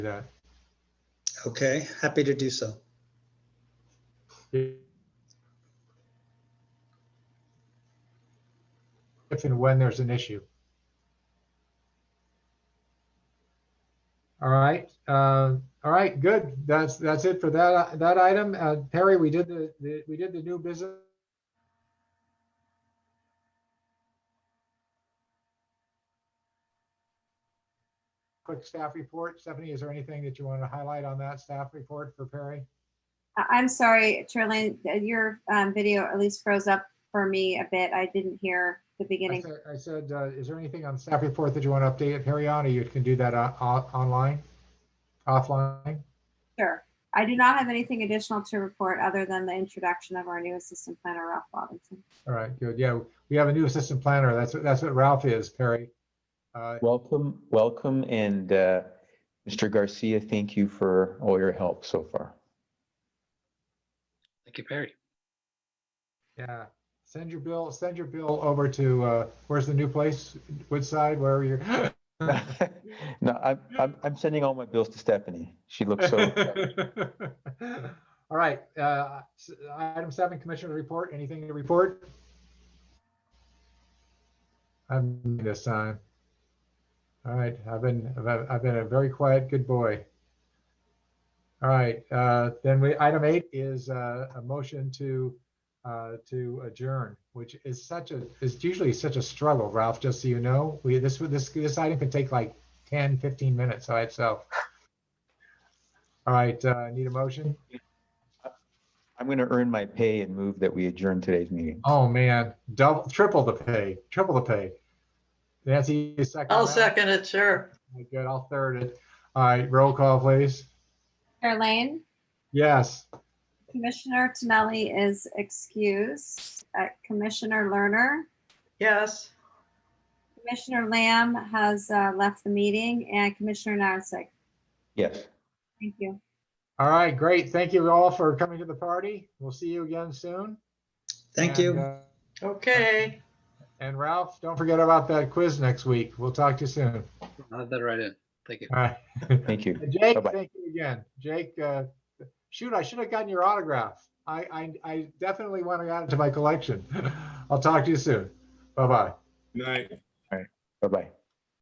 that. Okay, happy to do so. If and when there's an issue. All right, uh, all right, good. That's, that's it for that, that item. Uh, Perry, we did the, the- we did the new business. Quick staff report. Stephanie, is there anything that you want to highlight on that staff report for Perry? I- I'm sorry, Charlene, uh, your um, video at least froze up for me a bit. I didn't hear the I beginning. said, I said, uh, is there anything on staff report that you want to update, Perry, on, or you can do that uh, o- online? Offline? Sure. I do not have anything additional to report other than the introduction of our new assistant planner, Ralph Robinson. All right, good. Yeah, we have a new assistant planner. That's, what- that's what Ralph is, Perry. Uh, Welcome, welcome, and uh, Mr. Garcia, thank you for all your help so far. Thank you, Perry. Yeah, send your bill, send your bill over to, uh, where's the new place? Woodside, wherever you're. No, I'm, I'm, I'm sending all my bills to Stephanie. She looks so. All right, uh, s- item seven, commissioner report. Anything to report? I'm this time. All right, I've been, I've, I've been a very quiet good boy. All right, uh, then we, item eight is uh, a motion to, uh, to adjourn, which is such a, is usually such a struggle, Ralph, just so you know. We, this, would- this, this item could take like 10, 15 minutes by itself. All right, uh, need a motion? I'm going to earn my pay and move that we adjourn today's meeting. Oh, man, double, triple the pay, triple the pay. Nancy, you second? I'll that? second it, sure. Okay, Good, I'll third it. All right, roll call, please. Charlene, Yes, Commissioner Tinelli is excused. Uh, Commissioner Lerner, Yes, Commissioner Lamb has uh, left the meeting, and Commissioner Narnsec. Yes. Thank you. all right, great. Thank you all for coming to the party. We'll see you again soon. Thank And, you. uh, okay. And Ralph, don't forget about that quiz next week. We'll talk to you soon. I'll have that right in. Thank you. All right. Thank you. And Jake, Bye-bye. thank you again. Jake, uh, shoot, I should have gotten your autograph. I, I, I definitely want to add it to my collection. I'll talk to you soon. Bye-bye. Night. Bye-bye.